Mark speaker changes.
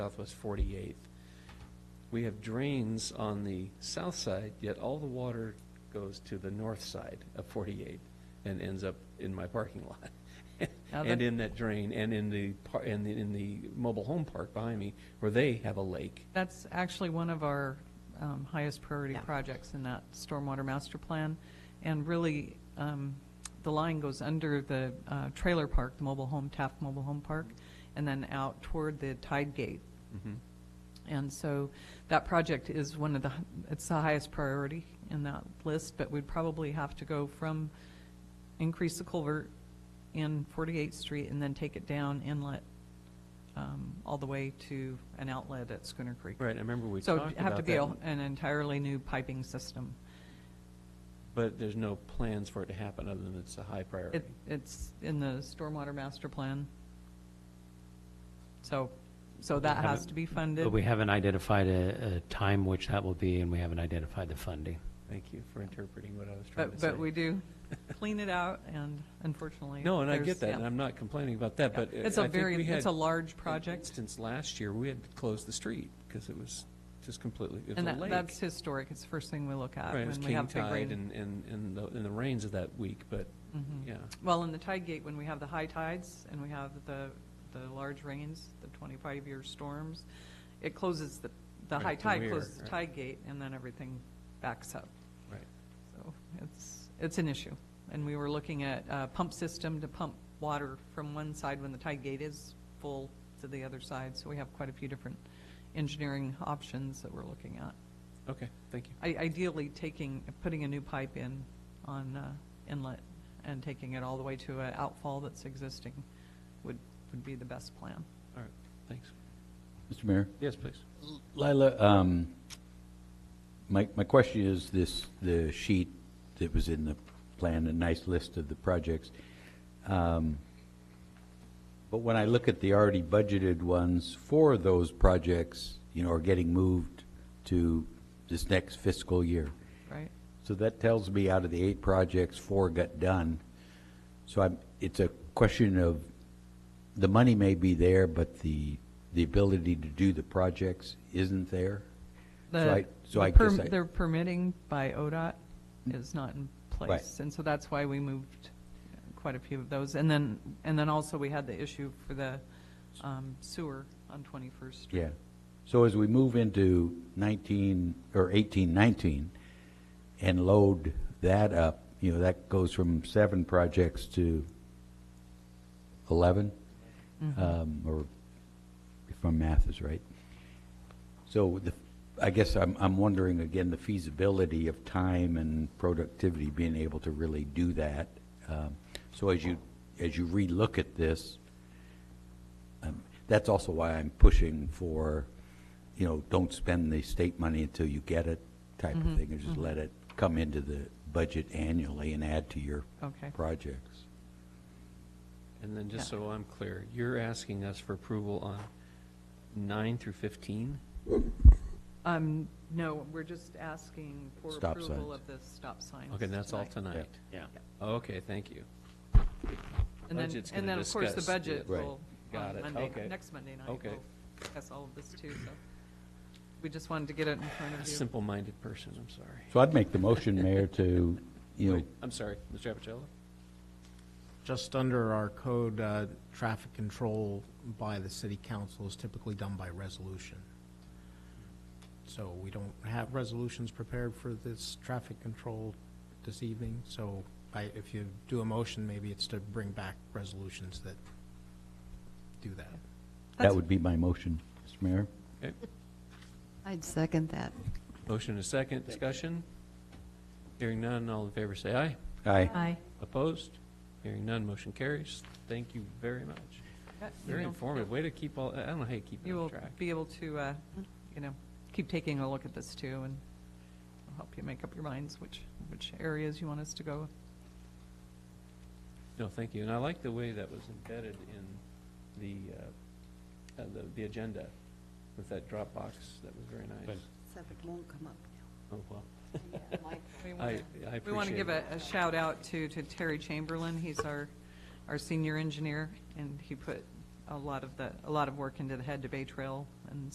Speaker 1: Southwest 48th. We have drains on the south side, yet all the water goes to the north side of 48 and ends up in my parking lot.
Speaker 2: Now
Speaker 1: And
Speaker 2: that-
Speaker 1: in that drain, and in the, par- and the- in the mobile home park behind me, where they have a lake.
Speaker 2: That's actually one of our um, highest priority
Speaker 3: Yeah.
Speaker 2: projects in that stormwater master plan. And really, um, the line goes under the uh, trailer park, the mobile home, Taft Mobile Home Park, and then out toward the tide gate.
Speaker 1: Mm-hmm.
Speaker 2: And so that project is one of the, it's the highest priority in that list, but we'd probably have to go from, increase the culvert in 48th Street and then take it down inlet um, all the way to an outlet at Schooner Creek.
Speaker 1: Right, I remember we
Speaker 2: So
Speaker 1: talked
Speaker 2: it'd
Speaker 1: about that.
Speaker 2: have to be a- an entirely new piping system.
Speaker 1: But there's no plans for it to happen, other than it's a high priority.
Speaker 2: It, it's in the stormwater master plan. So, so that
Speaker 4: haven't-
Speaker 2: has to be funded.
Speaker 4: But we haven't identified a, a time which that will be, and we haven't identified the funding.
Speaker 1: Thank you for interpreting what I was trying to
Speaker 2: But,
Speaker 1: say.
Speaker 2: but we do clean it out and unfortunately.
Speaker 1: No, and I
Speaker 2: there's-
Speaker 1: get that,
Speaker 2: yeah.
Speaker 1: and I'm not complaining about that, but. uh,
Speaker 2: It's
Speaker 1: I
Speaker 2: a
Speaker 1: think
Speaker 2: very,
Speaker 1: we had
Speaker 2: it's a large
Speaker 1: an
Speaker 2: project
Speaker 1: Instance last year, we had to close the street because it was just completely, it
Speaker 2: and
Speaker 1: was a
Speaker 2: that,
Speaker 1: lake.
Speaker 2: that's historic. It's the first thing we look at
Speaker 1: Right, it was
Speaker 2: when we
Speaker 1: king
Speaker 2: have big
Speaker 1: tide
Speaker 2: rain.
Speaker 1: and, and, and the, and the rains of that week, but,
Speaker 2: Mhm.
Speaker 1: yeah.
Speaker 2: Well, in the tide gate, when we have the high tides and we have the, the large rains, the twenty-five year storms, it closes the, the
Speaker 1: Right,
Speaker 2: high
Speaker 1: the
Speaker 2: tide
Speaker 1: weir,
Speaker 2: closes the
Speaker 1: right.
Speaker 2: tide gate and then everything backs up.
Speaker 1: Right.
Speaker 2: So it's, it's an issue. And we were looking at a pump system to pump water from one side when the tide gate is full to the other side. So we have quite a few different engineering options that we're looking at.
Speaker 1: Okay, thank you.
Speaker 2: I- Ideally, taking, putting a new pipe in on uh, inlet and taking it all the way to an outfall that's existing would, would be the best plan.
Speaker 1: All right, thanks.
Speaker 5: Mr. Mayor?
Speaker 1: Yes, please.
Speaker 5: Lila, um, my, my question is this, the sheet that was in the plan, a nice list of the projects. Um, But when I look at the already budgeted ones for those projects, you know, are getting moved to this next fiscal year.
Speaker 2: Right?
Speaker 5: So that tells me out of the eight projects, four got done. So I'm, it's a question of, the money may be there, but the, the ability to do the projects isn't there? So
Speaker 2: The-
Speaker 5: I- so
Speaker 2: the
Speaker 5: I
Speaker 2: perm-
Speaker 5: guess I- Mm-hmm.
Speaker 2: Their permitting by ODOT is not in place.
Speaker 5: Right.
Speaker 2: And so that's why we moved uh, quite a few of those. And then, and then also we had the issue for the um, sewer on 21st Street.
Speaker 5: Yeah. So as we move into nineteen, or eighteen, nineteen, and load that up, you know, that goes from seven projects to eleven, um, or if my math is right. So the, I guess I'm, I'm wondering again, the feasibility of time and productivity being able to really do that. Um, So as you, as you relook at this, um, That's also why I'm pushing for, you know, don't spend the state money until you get it type of thing, and just let it come into the budget annually and add to your
Speaker 2: Okay.
Speaker 5: projects.
Speaker 1: And then just
Speaker 2: Yeah.
Speaker 1: so I'm clear, you're asking us for approval on nine through 15?
Speaker 2: Um, No, we're just asking for
Speaker 5: Stop
Speaker 2: approval
Speaker 5: signs.
Speaker 2: of the stop signs.
Speaker 1: Okay, and that's all
Speaker 2: tonight.
Speaker 1: tonight?
Speaker 4: Yeah.
Speaker 1: Okay, thank you.
Speaker 2: And then,
Speaker 1: Budget's
Speaker 2: and
Speaker 1: gonna
Speaker 2: then, of course, the
Speaker 1: discuss the-
Speaker 2: budget
Speaker 5: Right.
Speaker 2: will,
Speaker 1: Got
Speaker 2: on
Speaker 1: it.
Speaker 2: Monday,
Speaker 1: Okay.
Speaker 2: next Monday night,
Speaker 1: Okay.
Speaker 2: we'll discuss all of this too, so. We just wanted to get it in front
Speaker 1: A
Speaker 2: of you.
Speaker 1: simple-minded person, I'm sorry.
Speaker 5: So I'd make the motion, Mayor, to, you know,
Speaker 1: Wait, I'm sorry, Mr. Apicello?
Speaker 6: Just under our code, uh, traffic control by the city council is typically done by resolution. So we don't have resolutions prepared for this traffic control this evening, so I, if you do a motion, maybe it's to bring back resolutions that do that.
Speaker 5: that would be my motion, Mr. Mayor.
Speaker 1: Okay.
Speaker 3: I'd second that.
Speaker 1: Motion and a second, discussion? Hearing none, all in favor say aye.
Speaker 5: Aye.
Speaker 3: Aye.
Speaker 1: Opposed? Hearing none, motion carries. Thank you very much.
Speaker 2: That-
Speaker 1: Very
Speaker 2: you'll-
Speaker 1: informative, way to keep all, I don't know how you keep it
Speaker 2: You
Speaker 1: on
Speaker 2: will
Speaker 1: track.
Speaker 2: be able to, uh, you know, keep taking a look at this too, and I'll help you make up your minds which, which areas you want us to go.
Speaker 1: No, thank you, and I like the way that was embedded in the, uh, uh, the, the agenda with that Dropbox, that was very nice.
Speaker 4: Good.
Speaker 3: Except it won't come up
Speaker 1: Oh, well,
Speaker 3: now.
Speaker 2: We wanna-
Speaker 1: I, I
Speaker 2: We want to
Speaker 1: appreciate
Speaker 2: give
Speaker 1: it.
Speaker 2: a, a shout out to, to Terry Chamberlain. He's our, our senior engineer, and he put a lot of the, a lot of work into the head to bay trail and